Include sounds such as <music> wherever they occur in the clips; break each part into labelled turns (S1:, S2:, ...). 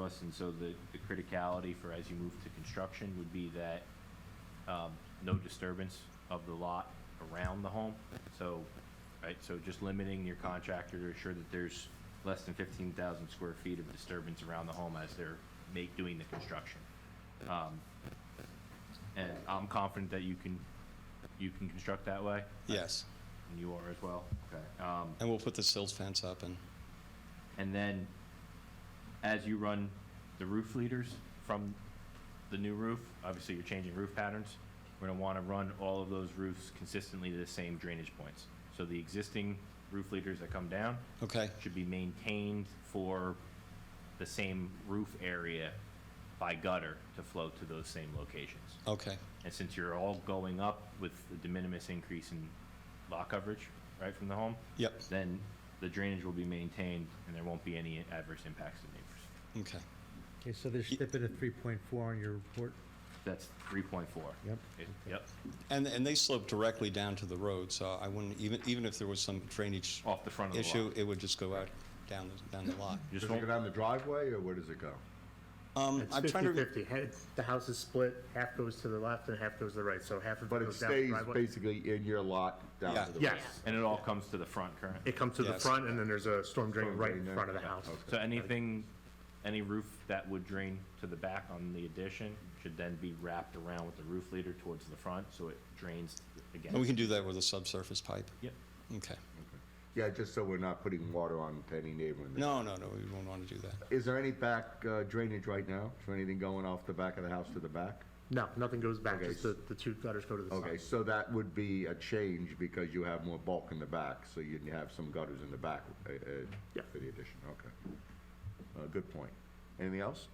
S1: us, and so the, the criticality for as you move to construction would be that, um, no disturbance of the lot around the home. So, right, so just limiting your contractor to ensure that there's less than fifteen thousand square feet of disturbance around the home as they're make, doing the construction. Um, And I'm confident that you can, you can construct that way,
S2: Yes,
S1: and you are as well, okay? Um,
S2: and we'll put the sills fence up and,
S1: and then, as you run the roof leaders from the new roof, obviously you're changing roof patterns. We're gonna wanna run all of those roofs consistently to the same drainage points. So the existing roof leaders that come down
S2: okay,
S1: should be maintained for the same roof area by gutter to flow to those same locations.
S2: okay,
S1: And since you're all going up with the de minimis increase in lot coverage, right, from the home,
S2: yep,
S1: then the drainage will be maintained and there won't be any adverse impacts to neighbors.
S2: okay.
S3: Okay, so there's snippet of three point four on your report.
S1: That's three point four.
S3: Yep.
S1: Yep,
S2: And, and they slope directly down to the road, so I wouldn't, even, even if there was some drainage
S1: off the front of the
S2: issue,
S1: lot.
S2: it would just go out down, the- down the <laughs> lot.
S1: Just
S4: Does it
S1: won't,
S4: go down the driveway, or where does it go?
S2: Um,
S5: It's
S2: I'm trying to,
S5: 50/50. Ha- it's- The house is split, half goes to the left and half goes to the right, so half of it
S4: But it
S5: goes down the
S4: stays
S5: driveway.
S4: basically in your lot down
S2: Yeah.
S4: to the
S5: Yes,
S4: road.
S1: and it all comes to the front current.
S5: it comes to the
S2: Yes.
S5: front and then there's a storm drain
S4: Storm
S5: right
S4: drain
S5: in
S4: there.
S5: front of the
S4: Yeah,
S5: house.
S4: okay.
S1: So anything, any roof that would drain to the back on the addition should then be wrapped around with the roof leader towards the front, so it drains again.
S2: and we can do that with a subsurface pipe,
S1: Yep,
S2: okay.
S4: Yeah, just so we're not putting water on to any neighboring.
S2: No, no, no, we wouldn't want to do that.
S4: Is there any back uh, drainage right now? Is there anything going off the back of the house to the back?
S5: No, nothing goes back,
S4: Okay.
S5: just the, the two gutters go to the
S4: Okay,
S5: side.
S4: so that would be a change because you have more bulk in the back, so you'd have some gutters in the back uh, uh,
S5: Yeah.
S4: for the addition, okay. Uh, Good point. Anything else?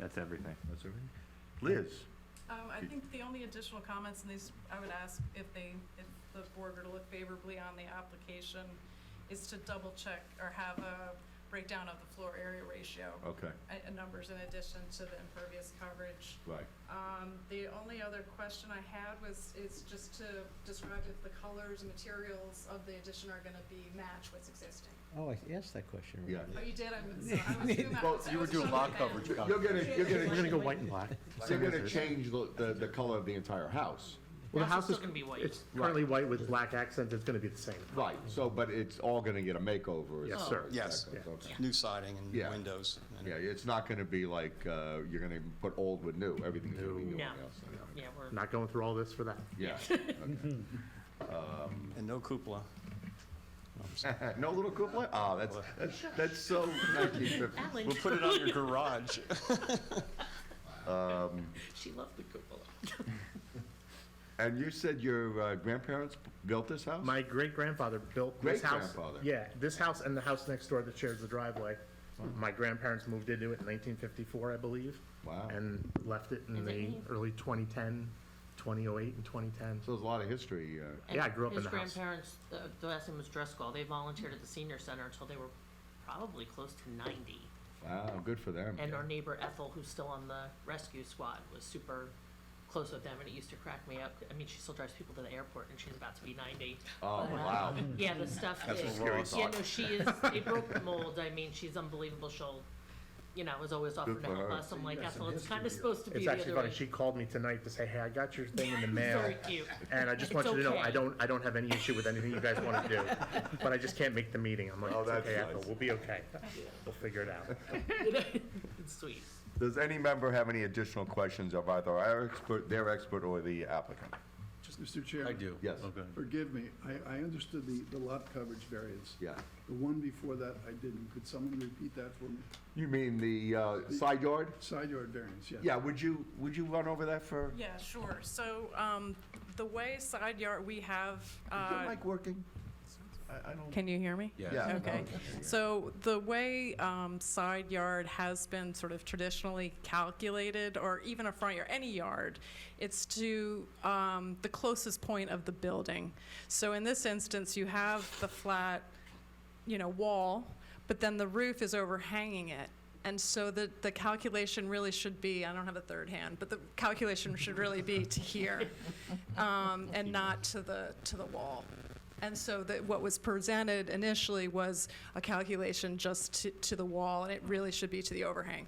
S1: that's everything.
S4: That's everything? Liz?
S6: Um, I think the only additional comments, and these, I would ask if they, if the board were to look favorably on the application, is to double check or have a breakdown of the floor area ratio.
S4: Okay,
S6: a- And numbers in addition to the impervious coverage.
S4: right.
S6: Um, the only other question I had was, is just to describe if the colors and materials of the addition are gonna be match what's existing.
S3: Oh, I asked that question.
S4: Yeah.
S6: Oh, you did, I'm, so I was
S7: <laughs>
S6: doing that.
S4: Well,
S6: so I
S7: you were
S6: was
S7: doing
S6: trying to
S7: lot
S6: get
S7: coverage.
S6: it.
S4: You're gonna, you're
S3: We're
S4: gonna,
S3: gonna go white and
S7: <laughs>
S3: black.
S4: you're gonna change the- the, the color of the entire house.
S5: Well, the house
S7: still
S5: is,
S7: gonna be white.
S5: it's currently white with black accents, it's gonna be the same.
S4: Right, so, but it's all gonna get a makeover. is
S5: Yes,
S4: that
S5: sir.
S4: right?
S2: Yes.
S4: That goes, okay.
S2: New siding and
S4: Yeah.
S2: windows. and-
S4: Yeah, it's not gonna be like, uh, you're gonna put old with new, everything's gonna be new on the
S7: No.
S4: outside.
S7: Yeah, we're.
S5: Not going through all this for that.
S4: Yeah. <laughs>
S2: And no cupola.
S4: okay. No little couplet? Ah, that's, that's, that's so nineteen fifty.
S7: Alan,
S2: We'll <laughs> put it on your garage.
S7: she loved the cupola.
S4: And you said your uh, grandparents b- built this house?
S5: My great-grandfather built this house.
S4: Great-grandfather.
S5: Yeah, this house and the house next door that shares the driveway. My grandparents moved into it in nineteen fifty-four, I believe.
S4: Wow.
S5: And left it in the early 2010, 2008, and twenty-ten.
S4: So there's a lot of history, uh,
S5: Yeah, I grew up in the
S7: His
S5: house.
S7: grandparents, the, the last name was Driscoll, they volunteered at the senior center until they were probably close to ninety.
S4: wow, good for them.
S7: And our neighbor Ethel, who's still on the rescue squad, was super close with them, and it used to crack me up. I mean, she still drives people to the airport, and she's about to be ninety.
S4: Oh,
S7: But, uh,
S4: wow.
S7: Yeah, the stuff
S4: That's a
S7: is,
S4: scary
S7: yeah,
S4: thought.
S7: no, she is, they broke the mold, I mean, she's unbelievable, she'll, you know, is always offering to
S4: for
S7: help
S4: her.
S7: us, I'm like, Ethel, it's kinda supposed to be
S5: It's
S7: the other way.
S5: actually funny, she called me tonight to say, hey, I got
S7: <laughs>
S5: your thing in the mail.
S7: Very cute.
S5: And I just want
S7: It's
S5: you to know, I
S7: okay.
S5: don't, I don't have any issue with anything you guys want to do, but I just can't make the meeting. I'm like,
S4: Oh,
S5: it's
S4: that's
S5: okay, Ethel,
S4: nice.
S5: we'll be okay. We'll figure it out.
S7: <laughs> It's sweet.
S4: Does any member have any additional questions of either our expert, their expert, or the applicant?
S8: Mr. Chair? I do.
S4: Yes,
S8: Forgive me, I, I understood the, the lot coverage variance.
S4: yeah.
S8: The one before that, I didn't. Could someone repeat that for me?
S4: You mean the uh, side yard?
S8: Side yard variance, yes.
S4: Yeah, would you, would you run over that for,
S6: Yeah, sure. So, um, the way side yard, we have,
S4: is your
S6: uh,
S4: mic working? I, I don't.
S6: can you hear me?
S4: Yeah,
S6: Okay,
S4: no.
S6: so the way um, side yard has been sort of traditionally calculated, or even a front yard, any yard, it's to um, the closest point of the building. So in this instance, you have the flat, you know, wall, but then the roof is overhanging it. And so the, the calculation really should be, I don't have a third hand, but the calculation should really be to here, um, and not to the, to the wall. And so that what was presented initially was a calculation just to, to the wall, and it really should be to the overhang.